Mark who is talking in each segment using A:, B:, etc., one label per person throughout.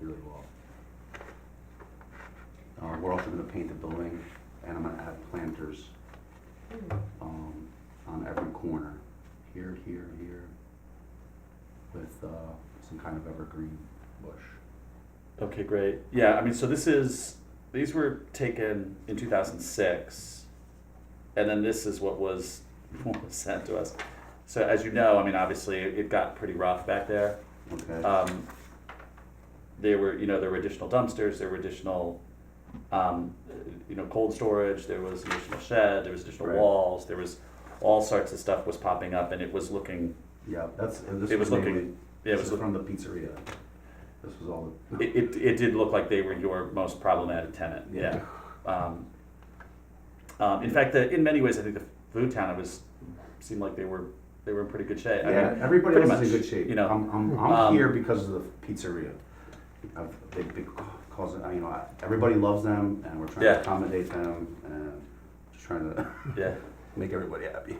A: really well. Uh, we're also gonna paint the building, and I'm gonna add planters, um, on every corner, here, here, here, with, uh, some kind of evergreen bush.
B: Okay, great. Yeah, I mean, so this is these were taken in two thousand six, and then this is what was what was sent to us. So as you know, I mean, obviously it got pretty rough back there.
A: Okay,
B: Um, there were, you know, there were additional dumpsters, there were additional, um, uh, you know, cold storage, there was additional shed, there was additional
A: Right.
B: walls, there was all sorts of stuff was popping up, and it was looking,
A: yeah, that's, and this
B: It was
A: was
B: looking-
A: mainly,
B: it
A: this
B: was
A: is from the pizzeria. This was all the.
B: It, it, it did look like they were your most problematic tenant, yeah.
A: Yeah.
B: Um, um, in fact, the, in many ways, I think the food town, it was, seemed like they were, they were in pretty good shape. I
A: Yeah,
B: mean,
A: everybody
B: pretty
A: else is in
B: much,
A: good shape.
B: You know,
A: I'm, I'm, I'm
B: Um,
A: here because of the pizzeria. I've, they, they cause it, I- you know, I- everybody loves them, and we're trying
B: Yeah.
A: to accommodate them, and just trying to
B: yeah.
A: make everybody happy.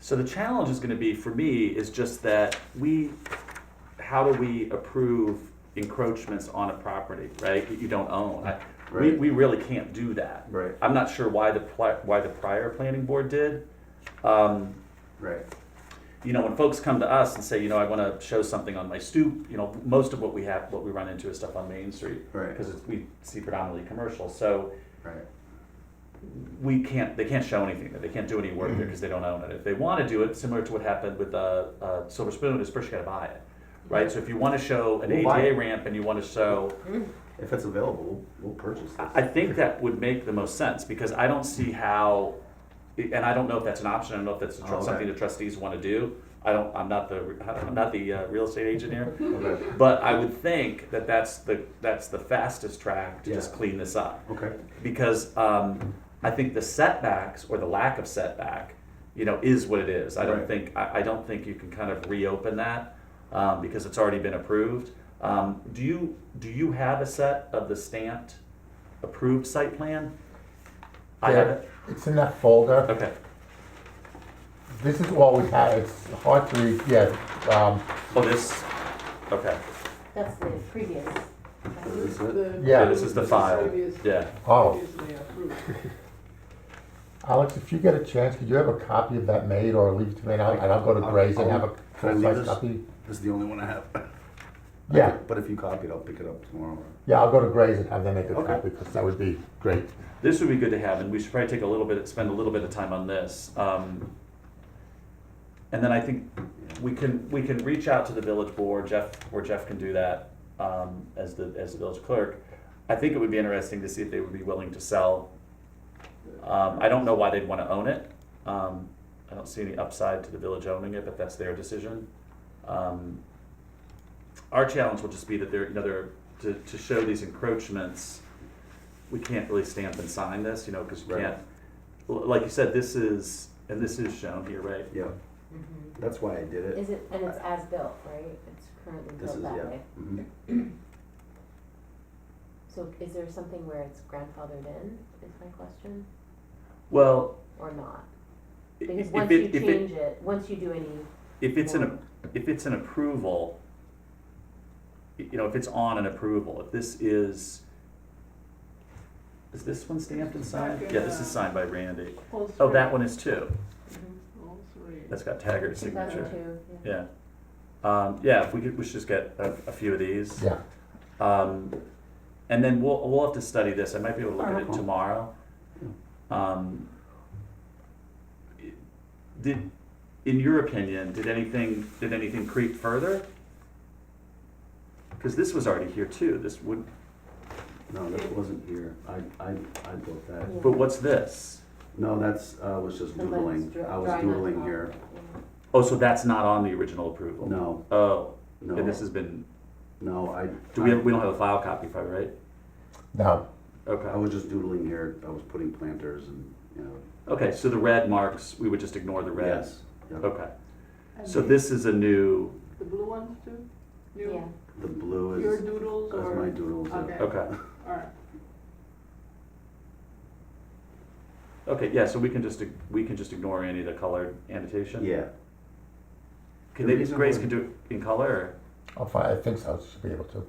B: So the challenge is gonna be, for me, is just that we, how do we approve encroachments on a property, right, that you don't own? I- We,
A: Right.
B: we really can't do that.
A: Right.
B: I'm not sure why the, pli- why the prior planning board did. Um,
A: Right.
B: you know, when folks come to us and say, you know, I want to show something on my stoop, you know, most of what we have, what we run into is stuff on Main Street.
A: Right.
B: Because we see predominantly commercial, so
A: Right.
B: we can't, they can't show anything, there. they can't do any work
A: Mm-hmm.
B: there because they don't own it. If they want to do it, similar to what happened with uh, uh, Silver Spoon, is first you got to buy it, right? So if you want to show an
A: We'll buy
B: ADA
A: it.
B: ramp and you want to show,
A: If it's available, we'll purchase this.
B: I I think that would make the most sense because I don't see how, and I don't know if that's an option. I don't know if that's a tr-
A: Oh, okay.
B: something the trustees want to do. I don't. I'm not the. I'm not the uh, real estate agent here.
A: Okay.
B: But I would think that that's the that's the fastest track to just
A: Yeah.
B: clean this up
A: Okay.
B: because um, I think the setbacks or the lack of setback, you know, is what it is. I don't
A: Right.
B: think I, I don't think you can kind of reopen that um, because it's already been approved. Um, do you do you have a set of the stamped approved site plan? I have it.
C: It's in that folder.
B: Okay.
C: This is all we had. It's hard to read. Yeah. Um,
B: Oh, this. Okay.
D: That's the previous.
A: Is it?
C: Yeah.
B: this is the file. Yeah.
C: oh, Alex, if you get a chance, could you have a copy of that made or leave it to me? And I'll, and I'll go to
A: I'll-
C: Gray's and
A: I'll-
C: have a
A: can I leave
C: full-size
A: this?
C: copy.
A: This is the only one I have.
C: Yeah.
A: But if you copy it, I'll pick it up tomorrow.
C: Yeah, I'll go to Gray's and have them make a
A: Okay.
C: copy because that would be great.
B: This would be good to have, and we should probably take a little bit, spend a little bit of time on this. Um, and then I think we can we can reach out to the village board, Jeff, or Jeff can do that um, as the as the village clerk. I think it would be interesting to see if they would be willing to sell. Um, I don't know why they'd want to own it. Um, I don't see any upside to the village owning it, but that's their decision. Um, our challenge will just be that there, you know, there to, to show these encroachments. We can't really stamp and sign this, you know, because we
A: Right.
B: can't. l- Like you said, this is and this is shown here, right?
A: Yeah, that's why I did it.
D: Is it, and it's as built, right? It's currently
A: This is,
D: built that
A: yeah.
D: way.
A: Mhm.
D: So is there something where it's grandfathered in, is my question,
B: Well,
D: or not?
B: If
D: Because once you
B: it, if
D: change
B: it,
D: it, once you do any.
B: if it's an,
D: form-
B: if it's an approval, y- you know, if it's on an approval, if this is, is this one stamped and signed? Yeah, this is signed by Randy. Oh, that one is too.
D: Mhm.
E: Mm-hmm. All three.
B: That's got Taggart's
D: 2002,
B: signature.
D: yeah.
B: Yeah. Um, yeah, if we could, we should just get a, a few of these.
C: Yeah.
B: Um, and then we'll, we'll have to study this, I might be able to look at it
A: Uh-huh.
B: tomorrow. Um, Did, in your opinion, did anything, did anything creep further? Cause this was already here too, this would,
A: No, this wasn't here. I, I, I built that.
D: Yeah.
B: but what's this?
A: No, that's, uh, was just
D: The lines
A: doodling.
D: dra-
A: I was
D: drawing on
A: doodling
D: top,
A: here.
D: yeah.
B: Oh, so that's not on the original approval?
A: No,
B: Oh,
A: no,
B: and this has been,
A: no, I.
B: do we,
A: I-
B: have- we don't have a file copy probably, right?
C: Now,
A: I
B: Okay,
A: was just doodling here, I was putting planters and, you know.
B: okay, so the red marks, we would just ignore the red?
A: yes, yep.
B: Okay, so this is a new,
E: The blue ones too?
D: Yeah,
E: You,
A: The blue
E: your
A: is,
E: doodles
A: is my
E: or,
A: doodles. yeah.
E: Okay.
B: okay.
E: alright,
B: Okay, yeah, so we can just, we can just ignore any of the colored annotation?
A: Yeah,
B: Can
A: The
B: they,
A: reason
B: Grace
A: why-
B: can do it in color, or-
C: I'll find, I think so, I should be able to.